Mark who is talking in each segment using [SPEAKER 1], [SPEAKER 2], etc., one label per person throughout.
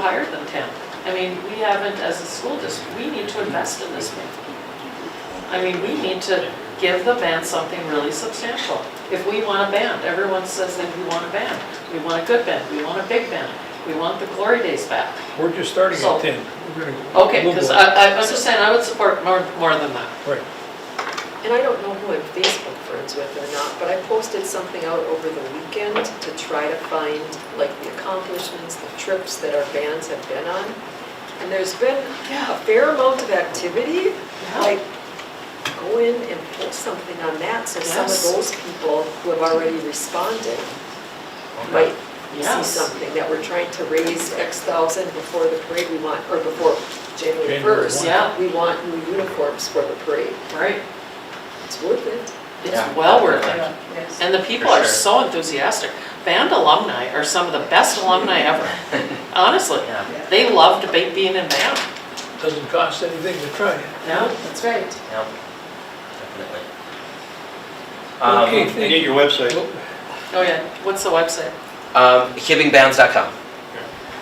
[SPEAKER 1] higher than 10. I mean, we haven't, as a school district, we need to invest in this man. I mean, we need to give the band something really substantial. If we want a band, everyone says that we want a band. We want a good band, we want a big band, we want the glory days back.
[SPEAKER 2] We're just starting
[SPEAKER 1] So-
[SPEAKER 2] at 10. We're gonna-
[SPEAKER 1] Okay,
[SPEAKER 2] we'll
[SPEAKER 1] because
[SPEAKER 2] go.
[SPEAKER 1] I, I was just saying, I would support more, more than that.
[SPEAKER 2] Right,
[SPEAKER 3] And I don't know who I'm Facebook friends with or not, but I posted something out over the weekend to try to find like the accomplishments, the trips that our bands have been on. And there's been a fair amount of activity, like go in and post something on that, so some of
[SPEAKER 1] Yes.
[SPEAKER 3] those people who have already responded might see
[SPEAKER 1] Yes.
[SPEAKER 3] something, that we're trying to raise X thousand before the parade we want, or before January
[SPEAKER 2] January
[SPEAKER 3] first.
[SPEAKER 2] one.
[SPEAKER 1] Yeah.
[SPEAKER 3] We want new uniforms for the parade.
[SPEAKER 1] Right,
[SPEAKER 3] It's worth it.
[SPEAKER 1] it's well worth it.
[SPEAKER 4] Yes.
[SPEAKER 1] And the people
[SPEAKER 5] For
[SPEAKER 1] are
[SPEAKER 5] sure.
[SPEAKER 1] so enthusiastic. Band alumni are some of the best alumni ever, honestly.
[SPEAKER 5] Yeah.
[SPEAKER 1] They loved to be- being in band.
[SPEAKER 2] doesn't cost anything to try it.
[SPEAKER 1] No?
[SPEAKER 4] That's right.
[SPEAKER 5] Yeah, definitely. Um,
[SPEAKER 2] Okay,
[SPEAKER 6] I get your website.
[SPEAKER 2] Well,
[SPEAKER 1] Oh, yeah. What's the website?
[SPEAKER 5] Um, hibbingbands.com,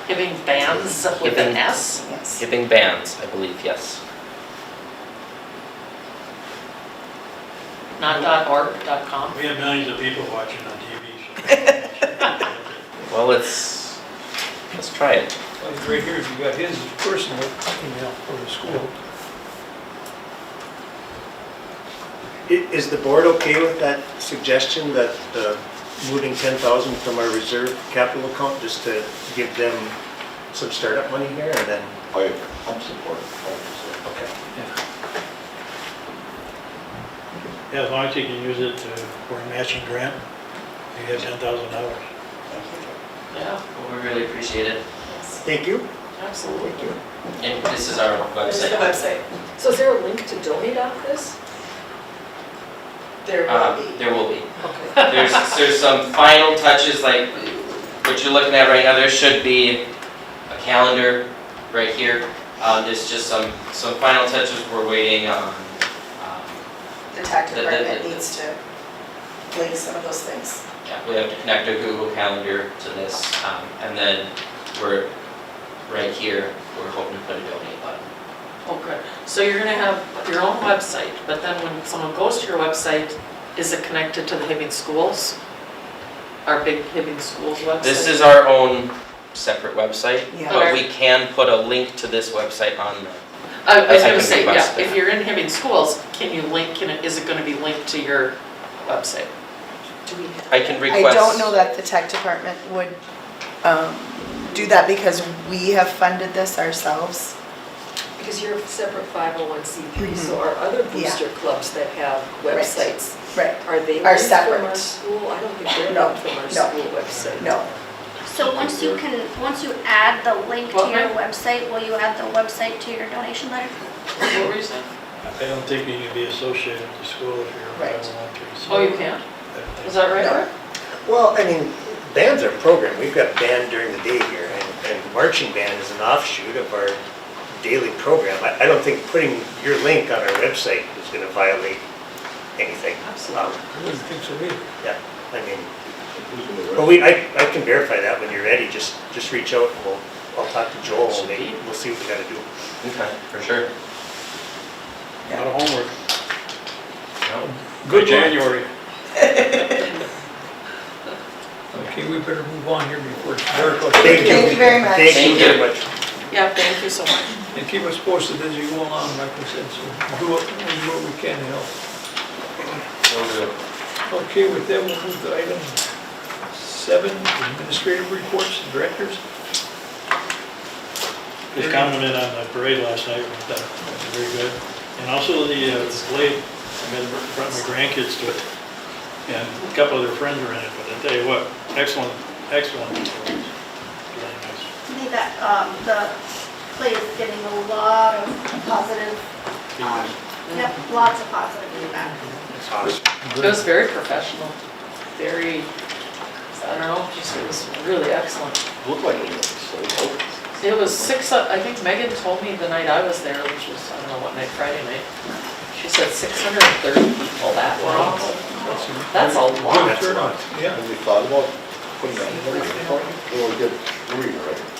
[SPEAKER 1] Giving bands with an
[SPEAKER 5] Giving-
[SPEAKER 1] S?
[SPEAKER 4] Yes.
[SPEAKER 5] Hibbing Bands, I believe, yes.
[SPEAKER 1] Not dot org, dot com?
[SPEAKER 6] We have millions of people watching on TV. so-
[SPEAKER 5] Well, let's, let's try it.
[SPEAKER 2] like Right here, you got his personal email from the school.
[SPEAKER 7] I- Is the board okay with that suggestion that uh, moving 10,000 from our reserve capital account just to give them some startup money here and then?
[SPEAKER 8] I, Oh, I'm supportive.
[SPEAKER 7] Okay.
[SPEAKER 6] Yeah, as long as you can use it to- for a matching grant, you get ten thousand dollars.
[SPEAKER 1] Yeah,
[SPEAKER 5] Well, we really appreciate it.
[SPEAKER 7] Thank you.
[SPEAKER 1] absolutely.
[SPEAKER 5] And this is our
[SPEAKER 4] There's the
[SPEAKER 5] website.
[SPEAKER 4] website.
[SPEAKER 3] So is there a link to donate off this?
[SPEAKER 4] There will
[SPEAKER 5] Um,
[SPEAKER 4] be.
[SPEAKER 5] there will be.
[SPEAKER 3] Okay.
[SPEAKER 5] There's, there's some final touches, like what you're looking at right now, there should be a calendar right here. Um, there's just some, some final touches we're waiting on. Um,
[SPEAKER 4] The tech
[SPEAKER 5] the- the-
[SPEAKER 4] department
[SPEAKER 5] the-
[SPEAKER 4] needs to link some of those things.
[SPEAKER 5] Yeah, we have to connect a Google Calendar to this, um, and then we're, right here, we're hoping to put a donate button.
[SPEAKER 1] Oh, good. So you're gonna have your own website, but then when someone goes to your website, is it connected to the Hibbing Schools? Our big Hibbing Schools website?
[SPEAKER 5] This is our own separate website,
[SPEAKER 4] Yeah.
[SPEAKER 5] but we can put a link to this website on the
[SPEAKER 1] I was
[SPEAKER 5] I- I
[SPEAKER 1] gonna
[SPEAKER 5] can
[SPEAKER 1] say,
[SPEAKER 5] request
[SPEAKER 1] yeah,
[SPEAKER 5] that.
[SPEAKER 1] if you're in Hibbing Schools, can you link, can it, is it gonna be linked to your website?
[SPEAKER 3] Do we have-
[SPEAKER 5] I can
[SPEAKER 4] I
[SPEAKER 5] request.
[SPEAKER 4] don't know that the tech department would um, do that because we have funded this ourselves.
[SPEAKER 3] Because you're a separate 501c3, so our other booster clubs that have websites,
[SPEAKER 4] Mm-hmm. Right.
[SPEAKER 3] are they
[SPEAKER 4] Are
[SPEAKER 3] linked from our
[SPEAKER 4] separate.
[SPEAKER 3] school? I don't think they're
[SPEAKER 4] No,
[SPEAKER 3] linked from our
[SPEAKER 4] no,
[SPEAKER 3] school website.
[SPEAKER 4] No,
[SPEAKER 9] So once you can, once you add the link to
[SPEAKER 1] What
[SPEAKER 9] your
[SPEAKER 1] link?
[SPEAKER 9] website, will you add the website to your donation letter?
[SPEAKER 1] What were you saying?
[SPEAKER 6] I don't think you can be associated with the school if you're a
[SPEAKER 4] Right.
[SPEAKER 6] 501(c)(3), so
[SPEAKER 1] Oh, you can't?
[SPEAKER 6] I
[SPEAKER 1] Is
[SPEAKER 6] think-
[SPEAKER 1] that right,
[SPEAKER 4] No.
[SPEAKER 1] Rick?
[SPEAKER 7] Well, I mean, bands are a program. We've got band during the day here and- and marching band is an offshoot of our daily program. I I don't think putting your link on our website is going to violate anything. Um,
[SPEAKER 1] Absolutely.
[SPEAKER 2] I wouldn't think so either.
[SPEAKER 7] Yeah, I mean.
[SPEAKER 8] Who's in the
[SPEAKER 7] Well, we, I, I can verify that when you're ready, just, just reach out, and we'll, I'll talk to Joel, and maybe we'll see what we gotta do.
[SPEAKER 5] Okay, for sure.
[SPEAKER 6] A lot of homework.
[SPEAKER 5] No.
[SPEAKER 2] Good luck.
[SPEAKER 6] January.
[SPEAKER 2] Okay, we better move on here before it's dark.
[SPEAKER 7] Thank you.
[SPEAKER 4] Thank you very much.
[SPEAKER 7] Thank you
[SPEAKER 5] Thank
[SPEAKER 7] very
[SPEAKER 5] you.
[SPEAKER 7] much.
[SPEAKER 1] Yeah, thank you so much.
[SPEAKER 2] And keep us posted as you go along, like we said, so do what, we do what we can to help.
[SPEAKER 5] Will do.
[SPEAKER 2] Okay, with that, we'll move to item seven, administrative reports, directors.
[SPEAKER 6] Just commented on the parade last night, which I thought was very good. And also the uh, display, I mean, I brought my grandkids to it, and a couple of their friends were in it, but I tell you what, excellent, excellent. displays. Really nice.
[SPEAKER 9] I think that, um, the play is getting a lot of positive, um, yep, lots of positive feedback.
[SPEAKER 7] That's awesome.
[SPEAKER 1] It was very professional, very, I don't know, just it was really excellent.
[SPEAKER 8] Looked like it was so open.
[SPEAKER 1] It was six, o- I think Megan told me the night I was there, which was, I don't know what night, Friday night, she said 630 people that were That's a lot.
[SPEAKER 2] Good turnout, yeah.
[SPEAKER 8] Have you thought about putting that in the report? It'll get three, right?